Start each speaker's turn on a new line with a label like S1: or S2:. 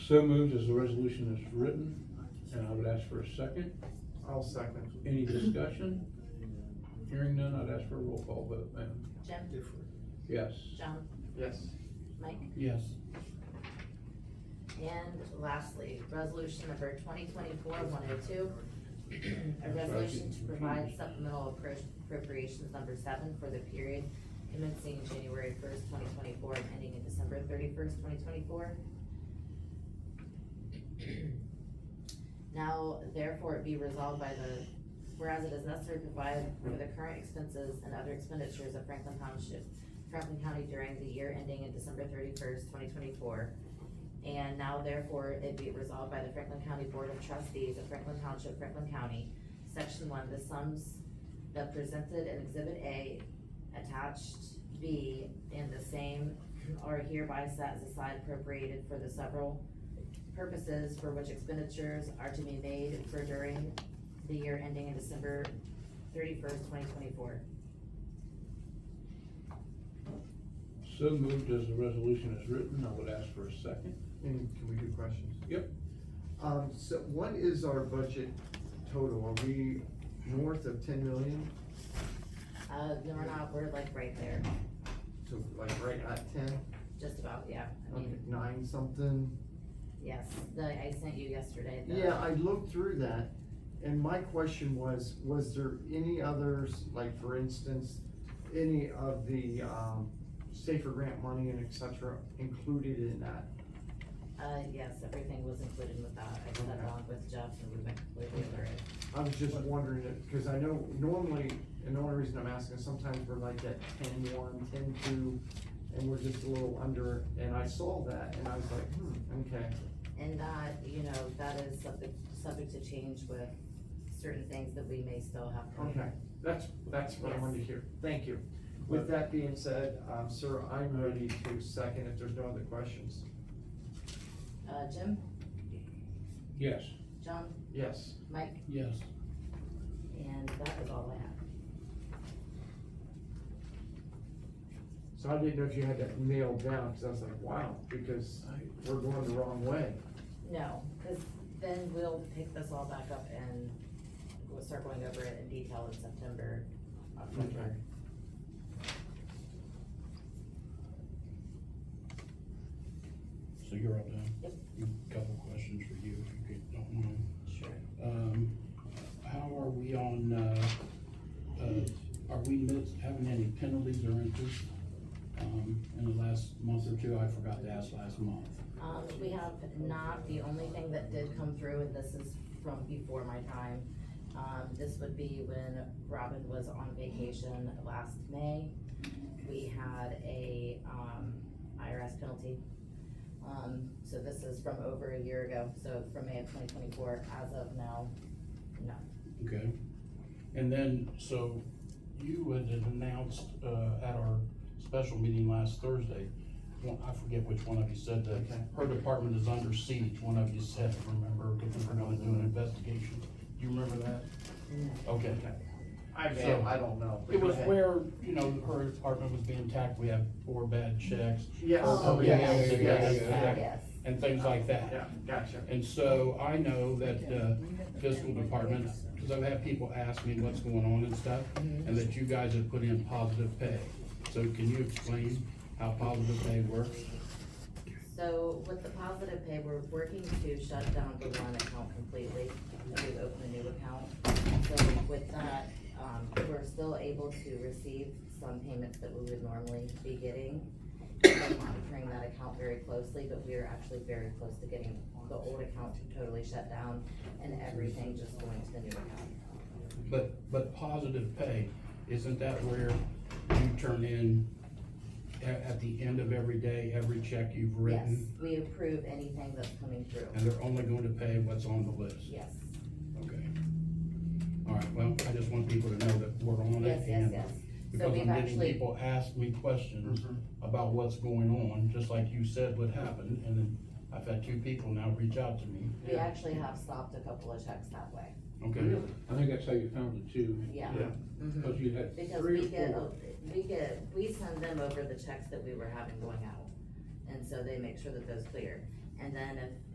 S1: So moved as the resolution is written, and I would ask for a second.
S2: I'll second.
S1: Any discussion? Hearing none, I'd ask for a roll call vote, ma'am.
S3: Jim,
S1: Yes.
S3: John,
S2: Yes.
S3: Mike.
S1: Yes.
S3: And lastly, resolution number twenty twenty-four one oh two. A resolution to provide supplemental appro- appropriations number seven for the period commencing January first, twenty twenty-four, and ending in December thirty-first, twenty twenty-four. Now therefore it be resolved by the, whereas it is necessary to provide for the current expenses and other expenditures of Franklin Township, Franklin County during the year ending in December thirty-first, twenty twenty-four, and now therefore it be resolved by the Franklin County Board of Trustees of Franklin Township, Franklin County, section one, the sums that presented in exhibit A, attached B, and the same are hereby set aside appropriated for the several purposes for which expenditures are to be made for during the year ending in December thirty-first, twenty twenty-four.
S1: So moved as the resolution is written, I would ask for a second.
S2: And can we do questions?
S1: Yep.
S2: Um, so what is our budget total? Are we north of ten million?
S3: Uh, no, we're not, we're like right there,
S2: So like right at ten,
S3: just about, yeah, I
S2: like
S3: mean,
S2: at nine something?
S3: yes, the, I sent you yesterday the.
S2: Yeah, I looked through that, and my question was, was there any others, like for instance, any of the, um, safer grant money and et cetera included in that?
S3: Uh, yes, everything was included with that, I sat
S2: Okay.
S3: along with Jeff and we went completely over it.
S2: I was just wondering it, because I know normally, and the only reason I'm asking, sometimes we're like at ten one, ten two, and we're just a little under, and I saw that, and I was like, hmm, okay.
S3: And that, you know, that is subject, subject to change with certain things that we may still have coming.
S2: Okay, that's, that's what I wanted to hear, thank you. With that being said, um, sir, I'm ready to second if there's no other questions.
S3: Uh, Jim,
S1: Yes.
S3: John,
S2: Yes,
S3: Mike,
S1: Yes.
S3: and that is all I have.
S2: so I didn't know if you had that nailed down, because I was like, wow, because we're going the wrong way.
S3: No, cause then we'll pick this all back up and we'll start going over it in detail in September, October.
S2: Okay.
S4: So you're up now?
S3: Yep.
S4: A Couple questions for you, if you could- don't mind.
S3: Sure.
S4: Um, how are we on, uh, uh, are we mis- having any penalties or interest? Um, in the last month or two, I forgot to ask last month.
S3: Um, we have not, the only thing that did come through, and this is from before my time, um, this would be when Robin was on vacation last May. We had a, um, IRS penalty. Um, so this is from over a year ago, so from May of twenty twenty-four, as of now, no.
S4: Okay. And then, so you had announced, uh, at our special meeting last Thursday, one- I forget which one of you said that
S2: Okay.
S4: her department is under siege, one of you said, remember, because we're gonna do an investigation. Do you remember that? Okay.
S2: I
S4: So-
S2: may, I don't know. but
S4: It
S2: go
S4: was
S2: ahead.
S4: where, you know, her department was being attacked, we have four bad checks
S2: Yes.
S3: Oh,
S4: yeah,
S3: yes,
S4: yeah, yeah,
S3: yes,
S4: yeah, yeah.
S3: Yes,
S4: and things like
S2: Yeah,
S4: that.
S2: gotcha.
S4: And so I know that the fiscal department, because I've had people ask me what's going on and stuff,
S3: Mm-hmm.
S4: and that you guys have put in positive pay. So can you explain how positive pay works?
S3: So with the positive pay, we're working to shut down the one account completely, and we open a new account. So with that, um, we're still able to receive some payments that we would normally be getting. We're monitoring that account very closely, but we are actually very close to getting the old account totally shut down and everything just going to the new account.
S4: But, but positive pay, isn't that where you turn in a- at, the end of every day, every check you've
S3: Yes,
S4: written?
S3: we approve anything that's coming through,
S4: And they're only going to pay what's on the list?
S3: yes,
S4: Okay. All right, well, I just want people to know that we're on
S3: yes,
S4: it
S3: yes,
S4: and
S3: yes. So
S4: because
S3: we've
S4: I'm getting
S3: actually.
S4: people ask me questions
S2: Mhm.
S4: about what's going on, just like you said would happen, and then I've had two people now reach out to me,
S3: We actually have stopped a couple of checks that way,
S4: okay?
S1: I think that's how you found the two,
S3: yeah.
S2: Yeah.
S3: Mhm.
S1: because you had
S3: Because
S1: three
S3: we
S1: or
S3: get,
S1: four.
S3: we get, we send them over the checks that we were having going out, and so they make sure that those clear. And then if